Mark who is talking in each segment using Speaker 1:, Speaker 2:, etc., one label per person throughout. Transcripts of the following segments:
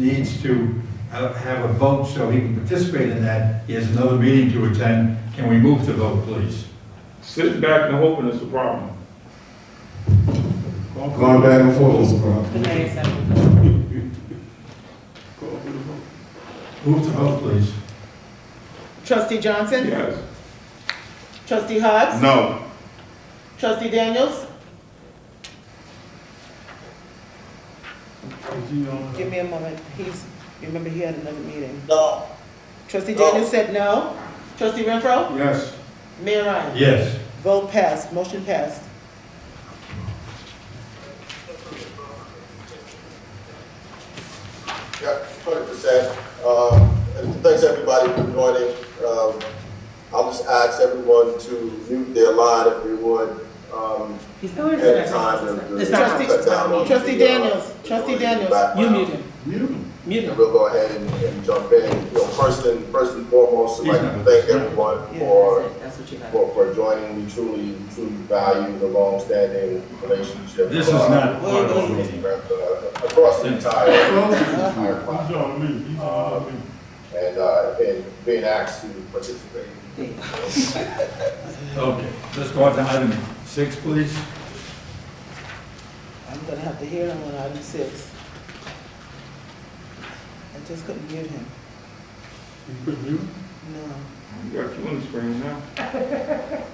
Speaker 1: needs to uh, have a vote so he can participate in that. He has another meeting to attend. Can we move to vote, please?
Speaker 2: Sitting back and hoping is the problem.
Speaker 1: Call for the vote.
Speaker 3: Going back and forth is a problem.
Speaker 4: The nays have it.
Speaker 2: Call for the vote.
Speaker 1: Move to vote, please.
Speaker 5: Trustee Johnson?
Speaker 2: Yes.
Speaker 5: Trustee Hogs?
Speaker 3: No.
Speaker 5: Trustee Daniels? Give me a moment, he's, remember he had another meeting. No. Trustee Daniels said no. Trustee Renfro?
Speaker 2: Yes.
Speaker 5: Mayor Ryan?
Speaker 1: Yes.
Speaker 5: Vote passed, motion passed.
Speaker 6: Yeah, hundred percent. Um, and thanks everybody for joining. Um, I'll just ask everyone to mute their line if you would. Um,
Speaker 4: He's
Speaker 6: at
Speaker 4: going to
Speaker 6: the
Speaker 4: the
Speaker 6: time. and-
Speaker 4: It's not-
Speaker 5: Trustee,
Speaker 6: Cut down on
Speaker 5: trustee
Speaker 6: the, uh,
Speaker 5: Daniels, trustee Daniels, you
Speaker 6: background.
Speaker 5: mute him, mute
Speaker 6: And
Speaker 5: him.
Speaker 6: we'll go ahead and, and jump in. You know, first and, first and foremost, I'd like to thank everyone
Speaker 5: Yeah,
Speaker 6: for
Speaker 4: That's what you got.
Speaker 6: for, for joining. We truly, truly value the long-standing relationship.
Speaker 1: This is not part of the meeting.
Speaker 6: Across the entire, entire class, and, uh, and being asked to participate.
Speaker 1: Okay, let's go on to item six, please.
Speaker 5: I'm gonna have to hear him on item six. I just couldn't mute him, no.
Speaker 2: We got you on the screen now.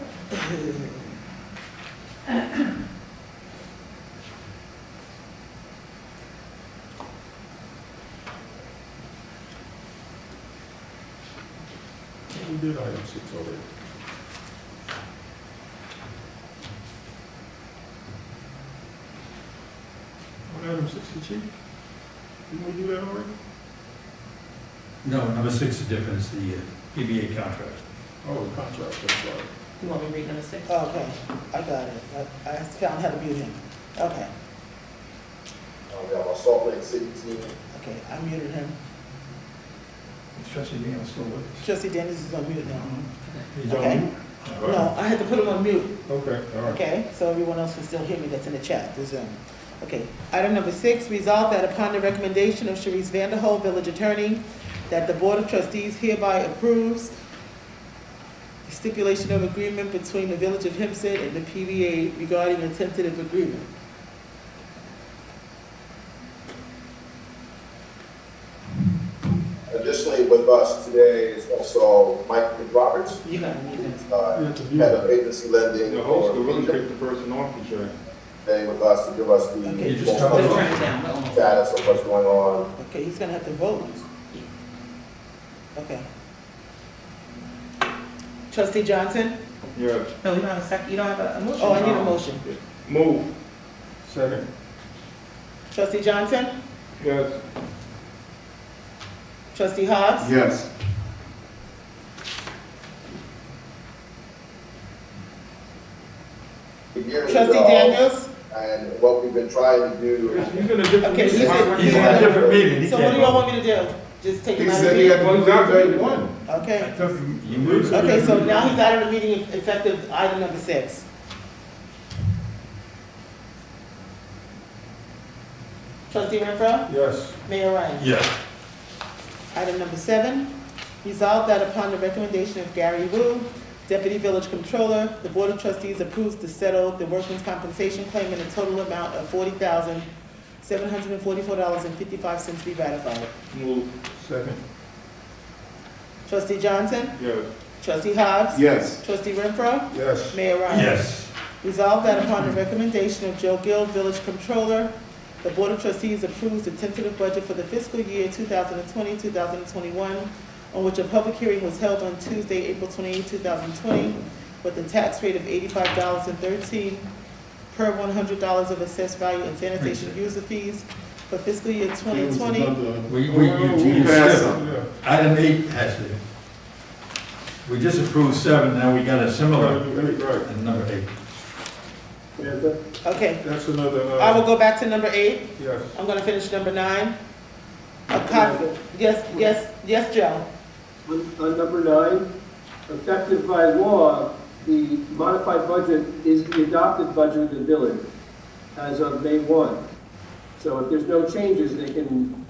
Speaker 2: On item sixty, chief? Didn't we do that already?
Speaker 1: No, number six is different, it's the uh, PBA contract.
Speaker 2: Oh, the contract, that's right.
Speaker 4: You want me to read number six?
Speaker 5: Okay, I got it, I, I found how to mute him, okay,
Speaker 6: Uh, We have our Salt Lake City team,
Speaker 5: okay, I muted him.
Speaker 1: Trustee Daniels still with
Speaker 5: Trustee Daniels is on mute now.
Speaker 1: He's
Speaker 5: Okay.
Speaker 1: on.
Speaker 5: No, I had to put him on mute,
Speaker 2: Okay, all right.
Speaker 5: okay? So everyone else can still hear me that's in the chat, the Zoom. Okay, item number six, resolve that upon the recommendation of Sharice Vanderhold, village attorney, that the Board of Trustees hereby approves the stipulation of agreement between the Village of Hempstead and the PVA regarding a tentative agreement.
Speaker 6: Additionally, with us today is also Mike Roberts,
Speaker 5: You gotta mute him.
Speaker 6: uh, head of agency lending.
Speaker 2: Mm-hmm. The host could really
Speaker 6: for Egypt,
Speaker 2: kick the person off the train.
Speaker 6: Today with us to give us the
Speaker 5: Okay.
Speaker 1: You just have
Speaker 4: Let's
Speaker 1: a-
Speaker 6: most
Speaker 4: turn it down. We're almost-
Speaker 6: status of what's going on.
Speaker 5: Okay, he's gonna have to vote. Okay. Trustee Johnson?
Speaker 2: Yeah.
Speaker 4: No, you don't have a sec, you don't have a a motion.
Speaker 5: Oh, I need a motion.
Speaker 2: Move. Second.
Speaker 5: Trustee Johnson?
Speaker 2: Yes.
Speaker 5: Trustee Hobbs?
Speaker 3: Yes.
Speaker 6: The year is
Speaker 5: Trustee
Speaker 6: all-
Speaker 5: Daniels?
Speaker 6: And what we've been trying to do,
Speaker 2: He's in a different.
Speaker 5: Okay, he's in-
Speaker 1: He's in a different meeting, he
Speaker 5: So what
Speaker 1: can't
Speaker 5: do y'all
Speaker 1: vote.
Speaker 5: want me to do? Just take
Speaker 3: He
Speaker 5: him out of the
Speaker 3: said he
Speaker 5: meeting?
Speaker 3: had to leave at eighty-one.
Speaker 1: I
Speaker 5: Okay.
Speaker 1: took him- You moved.
Speaker 5: Okay, so now he's out of the meeting effective item number six. Trustee Renfro?
Speaker 2: Yes.
Speaker 5: Mayor Ryan?
Speaker 1: Yes.
Speaker 5: Item number seven, resolve that upon the recommendation of Gary Wu, Deputy Village Controller, the Board of Trustees approves to settle the workers' compensation claim in a total amount of forty thousand, seven hundred and forty-four dollars and fifty-five cents be ratified.
Speaker 2: Move. Second.
Speaker 5: Trustee Johnson?
Speaker 2: Yes.
Speaker 5: Trustee Hobbs?
Speaker 3: Yes.
Speaker 5: Trustee Renfro?
Speaker 2: Yes.
Speaker 5: Mayor Ryan?
Speaker 1: Yes.
Speaker 5: Resolved that upon the recommendation of Joe Gill, Village Controller, the Board of Trustees approves the tentative budget for the fiscal year 2020, 2021, on which a public hearing was held on Tuesday, April 28, 2020, with a tax rate of $85.13 per $100 of assessed value and sanitation user fees for fiscal year 2020.
Speaker 1: We, we, you, you
Speaker 3: You passed
Speaker 1: skipped. Item eight has to. We just approved seven, now we got a similar
Speaker 2: Right,
Speaker 1: in number eight.
Speaker 5: Okay,
Speaker 2: that's another,
Speaker 5: I will
Speaker 2: uh,
Speaker 5: go back to number eight.
Speaker 2: yes.
Speaker 5: I'm going to finish number nine. A copy, yes, yes, yes, Joe.
Speaker 7: On on uh, number nine, effective by law, the modified budget is the adopted budget of the village as of May 1. So if there's no changes, they can